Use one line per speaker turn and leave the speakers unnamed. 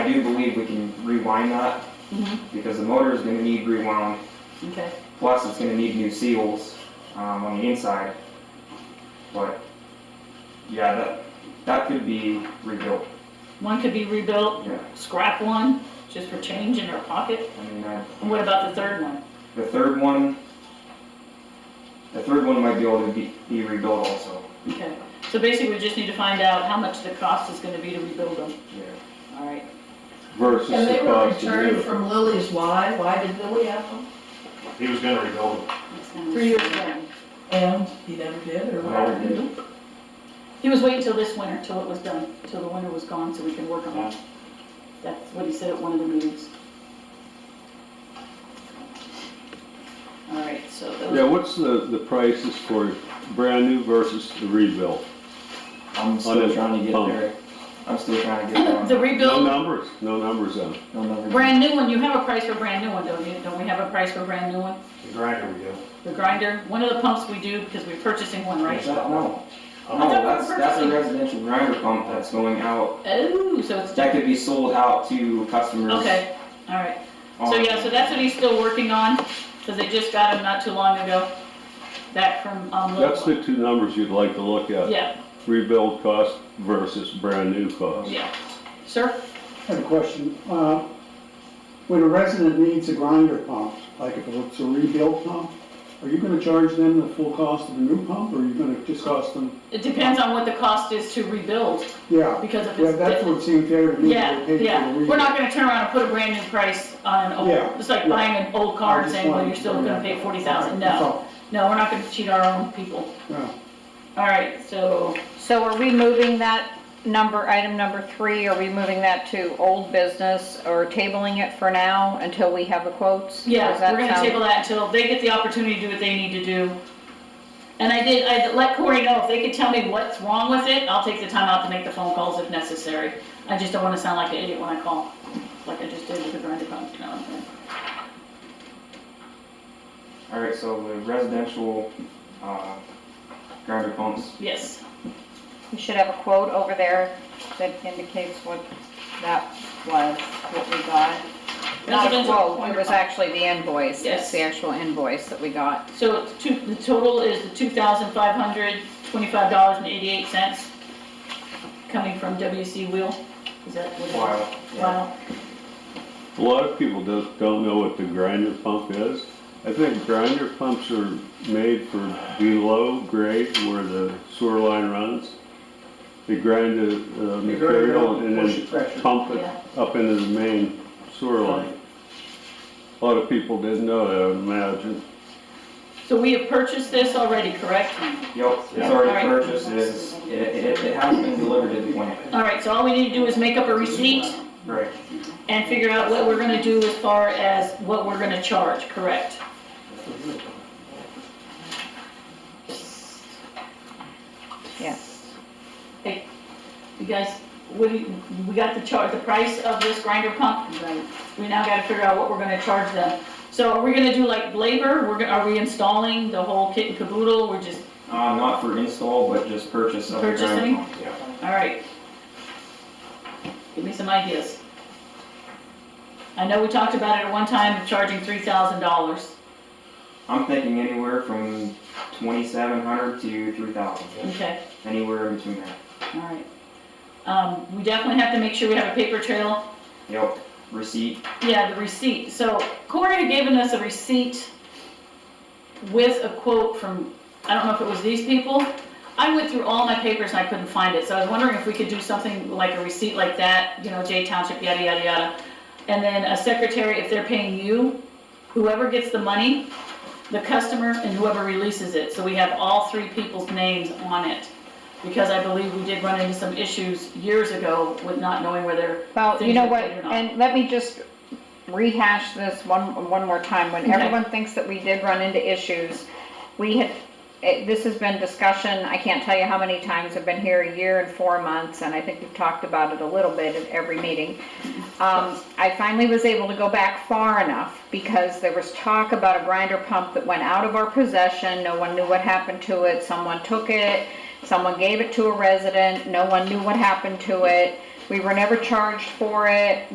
do believe we can rewind that,
Mhm.
because the motor is gonna need rewound,
Okay,
plus it's gonna need new seals, um, on the inside. But, yeah, that, that could be rebuilt,
one could be rebuilt,
yeah,
scrap one, just for change in their pocket.
I mean, I,
And what about the third one?
the third one, the third one might be able to be, be rebuilt also,
Okay, so basically, we just need to find out how much the cost is gonna be to rebuild them,
yeah.
all right?
versus
And
the
they were
cost of
returned
new.
from Lily's, why, why did Lily have them?
He was gonna rebuild it.
Three years ago. And he never did, or
Whatever
what?
it is.
Mm-hmm. He was waiting till this winter, till it was done, till the winter was gone, so we can work on it. That's what he said at one of the meetings. All right, so
Yeah,
those,
what's the, the prices for brand new versus the rebuilt?
I'm
On
still
a
trying to get
pump.
there, I'm still trying to get there. on
the
that.
No
rebuild,
numbers, no numbers on it.
No, no, no.
brand new one, you have a price for brand new one, don't you? Don't we have a price for brand new one?
The grinder we did.
The grinder, one of the pumps we do, because we're purchasing one, right?
No, no,
we
Um,
were
that's, that's a
purchasing.
residential grinder pump that's going out,
Oh, so it's,
that could be sold out to customers.
okay, all right. So
on-
yeah, so that's what he's still working on, because they just got him not too long ago, back from, um,
That's
Little.
the two numbers you'd like to look at.
Yeah,
Rebuild cost versus brand new cost.
yeah. Sir?
I have a question. Uh, When a resident needs a grinder pump, like if it's a rebuilt pump, are you gonna charge them the full cost of a new pump, or are you gonna just cost them?
It depends on what the cost is to rebuild,
Yeah,
because if
yeah,
it's.
that's what seemed fair to me.
Yeah,
They paid for the
yeah, we're
rebuild.
not gonna turn around and put a brand new price on an
Yeah,
old, it's like
yeah.
buying an old car
I
and
just
saying, well,
wanted
you're
to
still
bring
gonna
that
pay
up.
forty thousand,
That's
no,
all.
no, we're not gonna cheat our own people.
Yeah.
All right, so,
So are we moving that number, item number three, are we moving that to old business or tabling it for now until we have the quotes? Does
yeah,
that
we're gonna
sound-
table that until they get the opportunity to do what they need to do. And I did, I let Corey know, if they could tell me what's wrong with it, I'll take the time out to make the phone calls if necessary. I just don't wanna sound like an idiot when I call, like I just did with the grinder pump, you know what I'm saying?
All right, so the residential, uh, grinder pumps,
Yes.
We should have a quote over there that indicates what that was, what we got. Not a
Residential
quote, it
point
was
of-
actually the invoice,
Yes.
it's the actual invoice that we got.
So it's two, the total is the two thousand five hundred twenty-five dollars and eighty-eight cents coming from WC Wheel. Is that what it is?
Wow, yeah.
Wow.
A lot of people don't, don't know what the grinder pump is. I think grinder pumps are made for below grade where the sewer line runs. They grind the uh, material and then pump it
Yeah.
up into the main sewer line. A lot of people didn't know that, I would imagine.
So we have purchased this already, correct?
yep, it's
Yeah.
already
All right.
purchased, it is, it, it, it has been delivered to the plant.
All right, so all we need to do is make up a receipt
Right,
and figure out what we're gonna do as far as what we're gonna charge, correct?
Yes.
Hey, you guys, what do you, we got the chart, the price of this grinder pump. We now gotta figure out what we're gonna charge them. So are we gonna do like labor? We're, gonna- are we installing the whole kit and caboodle? We're just,
uh, not for install, but just purchase of the grinder
Purchasing?
pump. Yeah.
all right. Give me some ideas. I know we talked about it at one time, charging three thousand dollars.
I'm thinking anywhere from twenty-seven hundred to three thousand,
Okay.
anywhere in between there.
All right. Um, we definitely have to make sure we have a paper trail.
Yep, receipt,
Yeah, the receipt. So Corey had given us a receipt with a quote from, I don't know if it was these people. I went through all my papers and I couldn't find it, so I was wondering if we could do something like a receipt like that, you know, J Township, yada, yada, yada. And then a secretary, if they're paying you, whoever gets the money, the customer and whoever releases it. So we have all three people's names on it. Because I believe we did run into some issues years ago with not knowing where their
Well, you know what,
Things that they do not.
and let me just rehash this one, one more time. When
Okay.
everyone thinks that we did run into issues, we had, it- this has been discussion, I can't tell you how many times, I've been here a year and four months, and I think we've talked about it a little bit at every meeting. Um, I finally was able to go back far enough, because there was talk about a grinder pump that went out of our possession, no one knew what happened to it, someone took it, someone gave it to a resident, no one knew what happened to it, we were never charged for it,